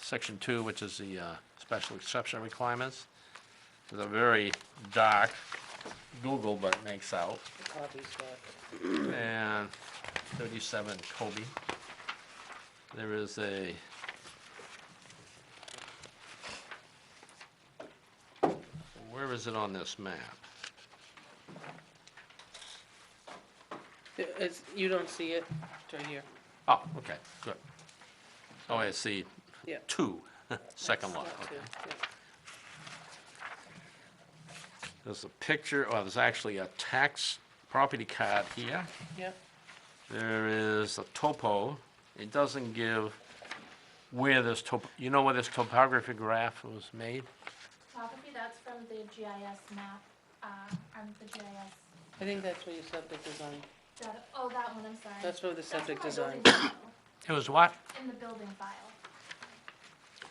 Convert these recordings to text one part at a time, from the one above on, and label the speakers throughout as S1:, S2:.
S1: section two, which is the uh, special exception requirements. It's a very dark Google, but it makes out.
S2: Coffee's back.
S1: And thirty-seven Kobe. There is a where is it on this map?
S2: It- It's, Uh, you don't see it, it's right here,
S1: Oh, okay, good. Oh, I see,
S2: yeah.
S1: two, second lot,
S2: Lot two,
S1: okay.
S2: yeah.
S1: There's a picture, oh, there's actually a tax property card here.
S2: Yeah,
S1: There is a topo. It doesn't give where this top, you know where this topography graph was made?
S3: Topography, that's from the GIS map, uh, um, the GIS,
S2: I think that's where your septic design,
S3: that, oh, that one, I'm sorry.
S2: that's where the septic
S3: That's in my
S2: design.
S3: building file,
S1: It was what?
S3: In the building file.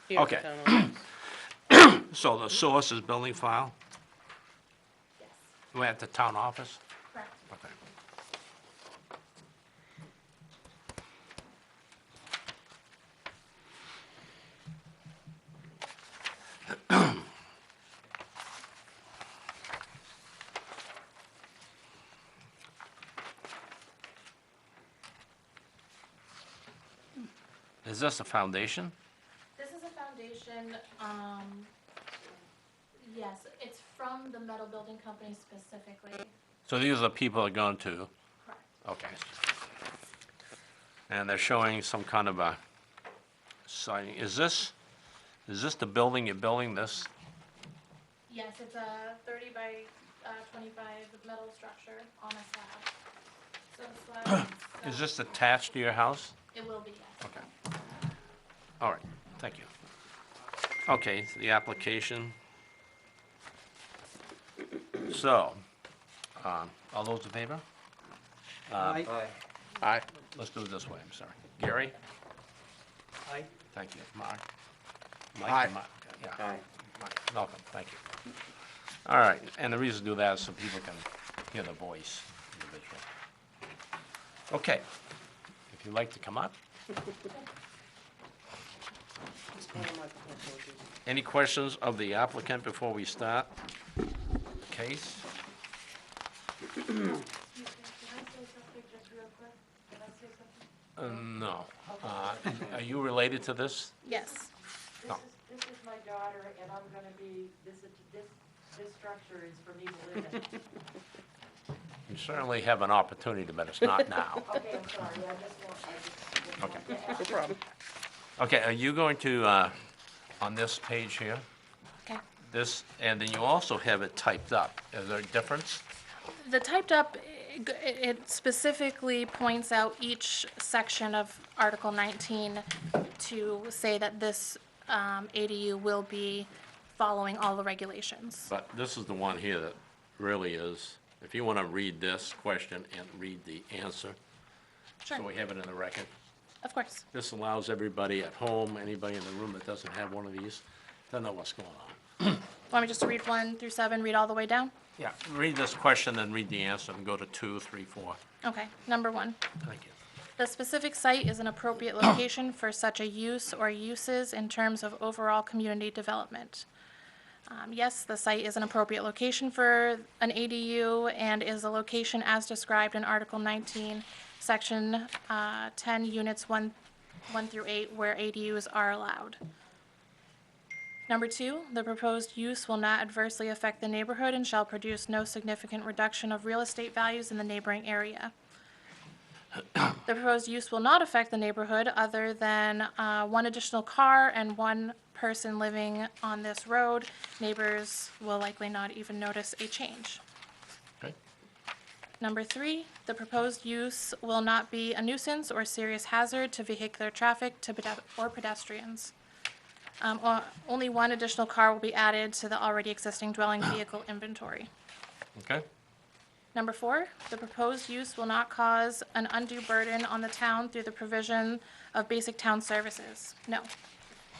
S2: Here,
S1: Okay.
S2: town office.
S1: So the source is building file?
S3: Yes,
S1: We're at the town office?
S3: correct.
S1: Okay. Is this a foundation?
S3: This is a foundation, um, yes, it's from the metal building company specifically,
S1: So these are the people that are going to,
S3: correct.
S1: okay. And they're showing some kind of a siding. Is this, is this the building you're building this?
S3: Yes, it's a thirty by, uh, twenty-five metal structure on a slab. So the slab.
S1: Is this attached to your house?
S3: It will be, yes.
S1: Okay. All right, thank you. Okay, so the application. So, um, all those in favor? Uh,
S4: Aye.
S1: Aye. Let's do it this way, I'm sorry. Gary?
S4: Aye.
S1: Thank you. Mark? Mike?
S5: Aye.
S1: Mark, Yeah, Mike, Malcolm, thank you. All right, and the reason to do that is so people can hear the voice individually. Okay, if you'd like to come up.
S2: It's one of my proposals.
S1: Any questions of the applicant before we start? Case?
S3: Excuse me, can I say something just real quick? Can I say
S1: Uh,
S3: something?
S1: No. Uh, Are you related to this?
S3: Yes.
S1: No.
S6: This is, this is my daughter, and I'm gonna be, this, is- this, this structure is for me to live in.
S1: You certainly have an opportunity, but it's not now.
S6: Okay, I'm sorry, I just want, I just didn't want to ask.
S1: Okay, are you going to, uh, on this page here?
S3: Okay.
S1: This, and then you also have it typed up. Is there a difference?
S3: The typed up, it g- it it specifically points out each section of Article 19 to say that this um, ADU will be following all the regulations.
S1: But this is the one here that really is, if you want to read this question and read the answer, so
S3: Sure,
S1: we have it in the record.
S3: of course.
S1: This allows everybody at home, anybody in the room that doesn't have one of these, to know what's going on.
S3: Want me just to read one through seven, read all the way down?
S1: Yeah, read this question, then read the answer, and go to two, three, four.
S3: Okay, number one.
S1: Thank you.
S3: The specific site is an appropriate location for such a use or uses in terms of overall community development. Um, Yes, the site is an appropriate location for an ADU and is a location as described in Article 19, Section uh, 10, Units 1 1 through 8, where ADUs are allowed. Number two, the proposed use will not adversely affect the neighborhood and shall produce no significant reduction of real estate values in the neighboring area. The proposed use will not affect the neighborhood other than uh, one additional car and one person living on this road. Neighbors will likely not even notice a change.
S1: Okay.
S3: Number three, the proposed use will not be a nuisance or serious hazard to vehicular traffic to pede- or pedestrians. Um, o- Only one additional car will be added to the already existing dwelling vehicle inventory.
S1: Okay?
S3: Number four, the proposed use will not cause an undue burden on the town through the provision of basic town services. No.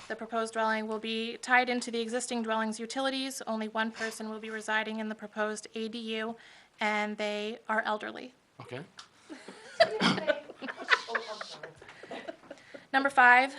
S3: The proposed dwelling will be tied into the existing dwelling's utilities. Only one person will be residing in the proposed ADU, and they are elderly.
S1: Okay.
S6: Oh, I'm sorry.
S3: Number five,